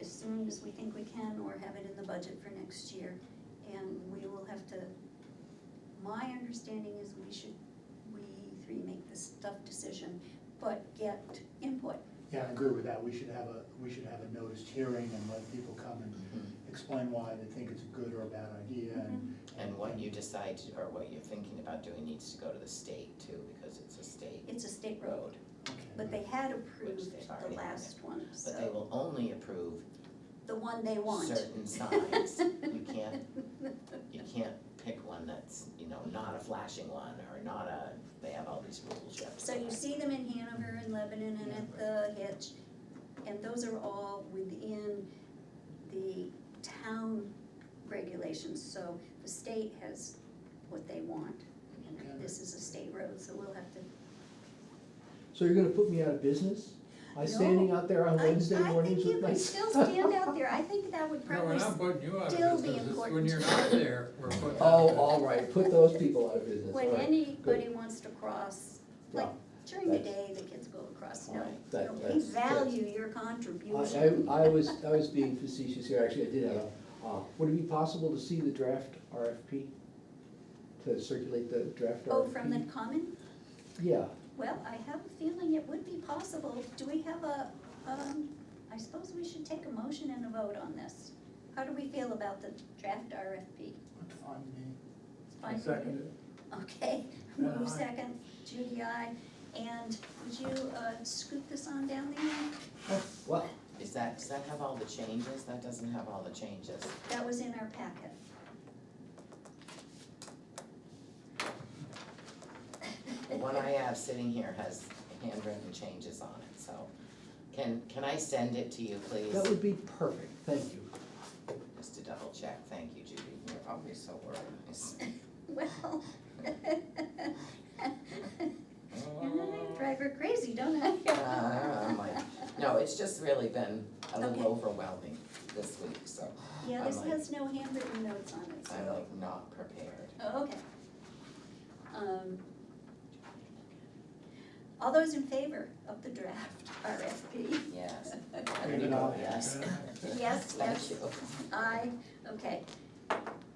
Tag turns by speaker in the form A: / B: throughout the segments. A: as we think we can or have it in the budget for next year. And we will have to, my understanding is we should, we three make this tough decision, but get input.
B: Yeah, I agree with that, we should have a, we should have a noticed hearing and let people come and explain why they think it's a good or a bad idea and.
C: And what you decide to- or what you're thinking about doing needs to go to the state too, because it's a state
A: It's a state road,
C: road.
A: Mm-hmm. but
B: Okay.
A: they had approved
C: they've
A: the
C: already-
A: last one,
C: But they
A: so,
C: will only approve
A: the one they want.
C: certain signs. You can't, you can't pick one that's, you know, not a flashing one or not a, they have all these rules you have to
A: So you
C: follow.
A: see them in Hanover and Lebanon and at the Hitch, and those are all within the town regulations, so the state has what they want. And this is a state road, so we'll have to,
D: So you're gonna put me out of business? I standing out there on
A: I,
D: Wednesday
A: I think
D: mornings
A: you
D: with my.
A: could still stand out there, I think that would
E: No,
A: probably,
E: we're not putting you out
A: still
E: of
A: be
E: business, it's when
A: important.
E: you're not there, we're putting. you out of
D: Oh,
E: business.
D: all right, put those people out of business, all
A: when
D: right.
A: anybody wants to cross, like
D: Yeah,
A: during the
D: that's-
A: day, the kids go across, no.
C: Right,
A: you
D: that-
A: know, We
D: that's- that's-
A: value your
D: I,
A: contribution.
D: I, I was, I was being facetious here, actually, I did have, a- uh, would it be possible to see the draft RFP? To circulate the draft RFP?
A: Oh, from the common?
D: Yeah,
A: Well, I have a feeling it would be possible. Do we have a, um, I suppose we should take a motion and a vote on this. How do we feel about the draft RFP?
B: It's fine with me.
A: It's fine with you? Okay, move second, Judy, I, and would you, uh, scoop this on down there?
D: well,
C: Is that, does that have all the changes? That doesn't have all the changes.
A: That was in our packet.
C: The one I have sitting here has handwritten changes on it, so. Can, can I send it to you, please?
D: that would be perfect, thank you.
C: Just to double check, thank you, Judy, you're always so organized.
A: Well. And then I
E: Oh,
A: drive her crazy, don't
C: Uh,
A: I?
C: I'm like, No, it's just really been a
A: Okay.
C: little overwhelming this week, so
A: Yeah, this
C: I'm like-
A: has no handwritten notes on it, so.
C: I'm like not prepared.
A: Oh, okay. Um, All those in favor of the draft RFP?
C: Yes,
B: Yeah,
C: I'm
B: no.
C: gonna go, yes,
A: Yes,
C: thank
A: yes,
C: you.
A: I, okay.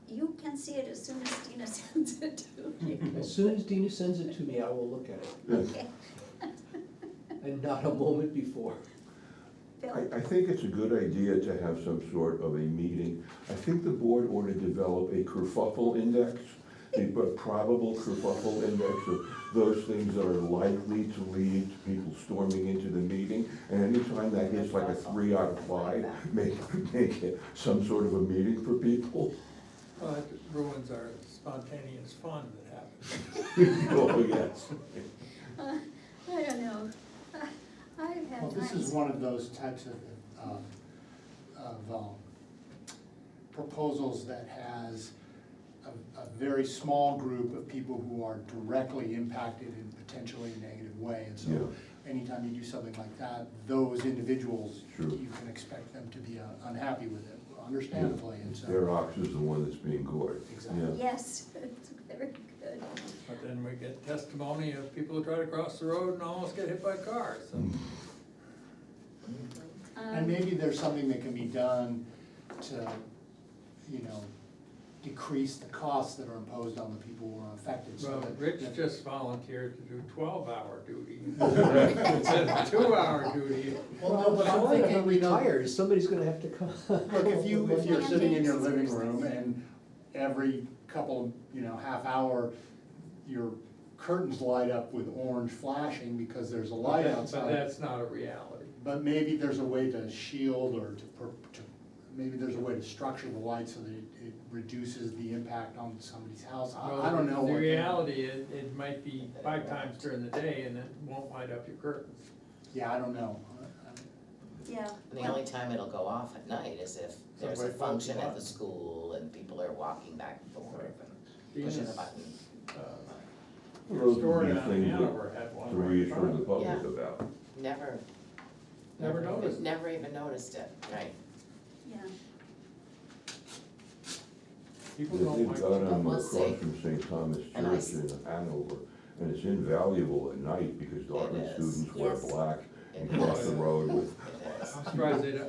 A: You can see it as soon as Dina sends it to you.
D: As soon as Dina sends it to me, I will look at it,
A: Okay,
D: and not a moment before.
A: Bill,
F: I, I think it's a good idea to have some sort of a meeting. I think the board ought to develop a kerfuffle index, a p- probable kerfuffle index of those things that are likely to lead to people storming into the meeting. And anytime that hits like a three out of five, make, make it some sort of a meeting for people.
E: Well, it ruins our spontaneous fun that happens.
F: Oh, yes.
A: uh, I don't know. Uh, I've
B: Well,
A: had
B: this is
A: times,
B: one of those types of, um, of, um, proposals that has a, a very small group of people who are directly impacted in potentially a negative way. And so anytime you do something like that, those individuals,
F: Sure.
B: you can expect them to be uh, unhappy with it, understandably, and so.
F: Their ox is the one that's being gored.
B: Exactly.
F: Yeah.
A: yes, it's very good.
E: But then we get testimony of people who try to cross the road and almost get hit by cars, so.
B: And
A: Um,
B: maybe there's something that can be done to, you know, decrease the costs that are imposed on the people who are affected, so
E: Well,
B: that.
E: Rich
B: that-
E: just volunteered to do twelve-hour duty instead of two-hour duty.
B: Well, no, but
D: Well,
B: I'm
D: if
B: thinking,
D: he
B: you know,
D: retires, somebody's gonna have to come.
B: look, if you, if you're sitting in your
A: Landing,
B: living
A: scissors.
B: room and every couple, you know, half hour, your curtains light up with orange flashing because there's a light
E: But
B: outside.
E: that's not a reality.
B: But maybe there's a way to shield or to, per- to, maybe there's a way to structure the light so that it it reduces the impact on somebody's house.
E: Well,
B: I, I don't know. what
E: The
B: they-
E: reality is, it might be five times during the day and it won't light up your curtains.
B: Yeah, I don't know.
A: Yeah,
C: The only time it'll go off at night is if there's a
B: Somebody phones
C: function
B: you
C: at
B: up.
C: the school and people are walking back and forth and pushing the
E: Venus,
C: button.
E: uh, Your
F: Those would
E: story
F: be
E: on
F: things that-
E: Hanover had
F: To
E: one right in
F: reassure
E: front
F: the
E: of it.
F: public about.
C: Never,
E: Never noticed.
C: never even noticed it, right?
A: yeah.
E: People don't
F: They've
E: like.
F: got them
C: We'll
F: across
C: see.
F: from St. Thomas
C: And I s-
F: Church in Hanover, and it's invaluable at night because Dartmouth
C: is,
F: students wear
A: yes.
F: black and
C: It
F: cross
C: is.
F: the road with
C: It is.
E: I'm surprised they don't,